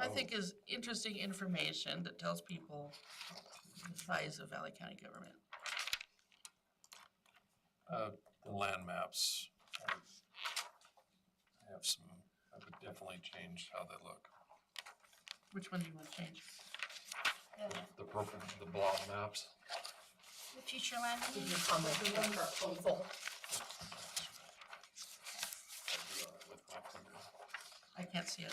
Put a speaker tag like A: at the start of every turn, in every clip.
A: I think is interesting information that tells people the size of Valley County government.
B: Uh, the land maps. I I have some, I would definitely change how they look.
A: Which one do you want to change?
B: The purple, the blob maps.
C: The future land.
D: Remember, hopeful.
B: I'd do all right with my finger.
A: I can't see it.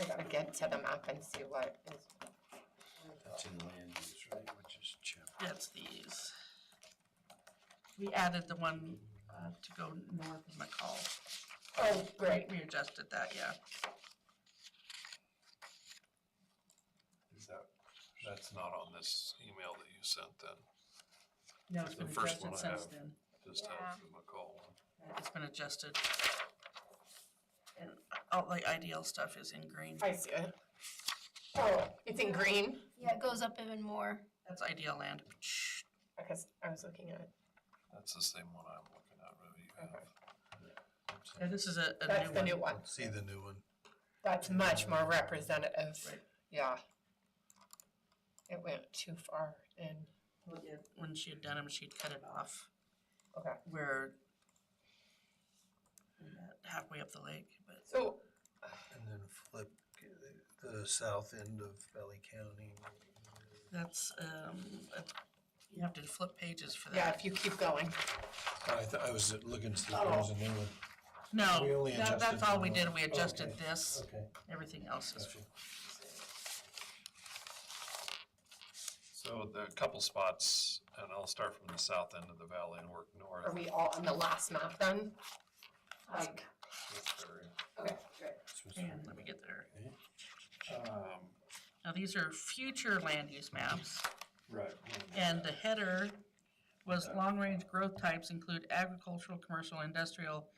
D: I gotta get to the map and see what is.
E: That's in land use, right, which is chapter.
A: That's these. We added the one uh, to go north of McCall.
D: Oh, great.
A: We adjusted that, yeah.
B: Is that, that's not on this email that you sent then,
A: No, it's been
B: The first one
A: adjusted
B: I
A: since
B: have.
A: then.
B: just have the McCall one.
A: It's been adjusted. And all the IDL stuff is in green.
D: I see it. Oh, it's in green?
C: Yeah, it goes up even more.
A: That's IDL land.
D: Because I was looking at it.
B: That's the same one I'm looking at, really. you have.
A: Yeah, this is a, a
D: That's
A: new
D: the
A: one.
D: new one.
E: See the new one?
D: That's much more representative.
A: Right.
D: Yeah. It went too far in.
A: Well, yeah, When she had done them, she'd cut it off.
D: Okay.
A: We're about halfway up the lake, but
D: So
E: And then flip the south end of Valley County.
A: that's, um, uh, you have to flip pages for
D: yeah,
A: that.
D: if you keep going.
E: I thought, I was looking to see if there was a new one. we
A: No,
E: only
A: that, that's
E: adjusted
A: all
E: the
A: we did,
E: one.
A: we
E: Oh,
A: adjusted
E: okay.
A: this,
E: Okay,
A: everything else is,
E: gotcha.
B: So the couple spots, and I'll start from the south end of the valley and work north.
D: Are we all on the last map then? Like,
B: That's very-
D: okay, great.
E: This was-
A: and let me get there.
B: Um,
A: Now, these are future land use maps,
B: right.
A: and the header was long-range growth types include agricultural, commercial, industrial,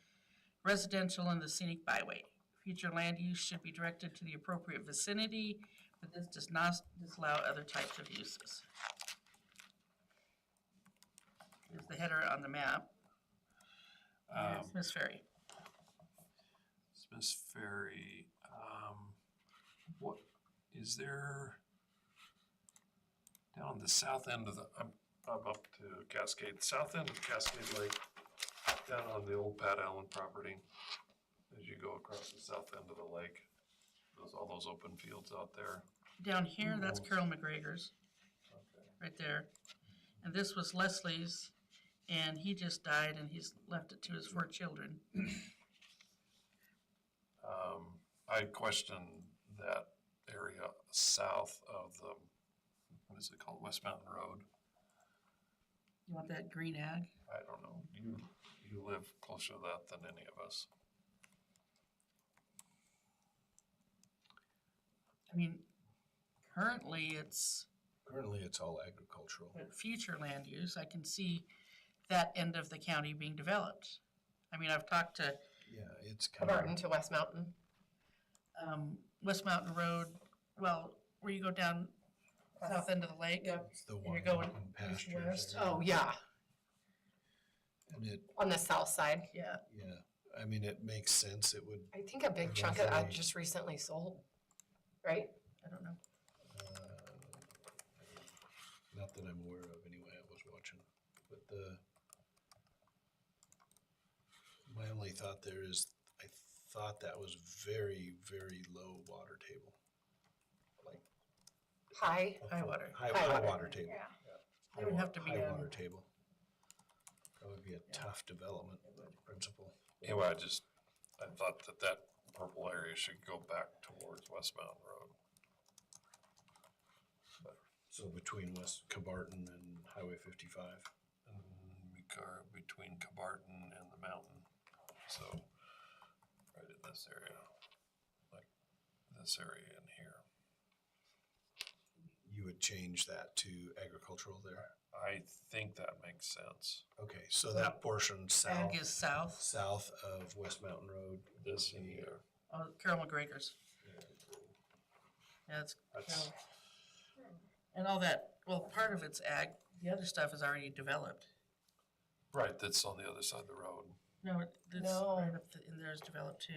A: residential, and the scenic byway. Future land use should be directed to the appropriate vicinity, but this does not disallow other types of uses. Here's the header on the map,
B: Um,
A: Miss Ferry.
B: Smith Ferry, um, what, is there? Down the south end of the, I'm, I'm up to Cascade, south end of Cascade Lake, down on the old Pat Allen property. As you go across the south end of the lake, those, all those open fields out there.
A: Down here, that's
B: Mhm.
A: Carol McGregor's, right there. And this was Leslie's, and he just died, and he's left it to his four children.
B: Um, I question that area south of the, what is it called, West Mountain Road?
A: You want that green ag?
B: I don't know, you, you live closer to that than any of us.
A: I mean, currently, it's
E: Currently, it's all agricultural.
A: but future land use, I can see that end of the county being developed. I mean, I've talked to,
E: Yeah, it's kind
D: Burton
E: of,
D: to West Mountain.
A: um, West Mountain Road, well, where you go down south end of the lake.
D: Yeah.
E: it's the one
A: going
E: in pastures.
A: west?
E: there.
D: Oh, yeah,
E: And it,
D: on the south side.
A: Yeah,
E: yeah, I mean, it makes sense. It would,
D: I think a big chunk of that just recently sold, right?
A: I don't know.
E: uh, not that I'm aware of anyway, I was watching, but the, my only thought there is, I thought that was very, very low water table.
D: High,
A: High water.
E: High,
D: High
E: high
D: water.
E: water table.
A: It would have to be,
E: High
A: um,
E: water table. That would be a tough development principle.
B: Anyway, I just, I thought that that purple area should go back towards West Mountain Road.
E: So between West Cabarton and Highway fifty-five.
B: And we are between Cabarton and the mountain, so right in this area, like this area in here.
E: You would change that to agricultural there?
B: I think that makes sense.
E: Okay, so that portion south,
A: Ag is south,
E: south of West Mountain Road.
B: This in here,
A: oh, Carol McGregor's. Yeah, it's
B: that's,
A: Carol. And all that, well, part of it's ag, the other stuff is already developed.
B: right, that's on the other side of the road.
A: No, it- it's
D: No.
A: right up the- in there is developed too.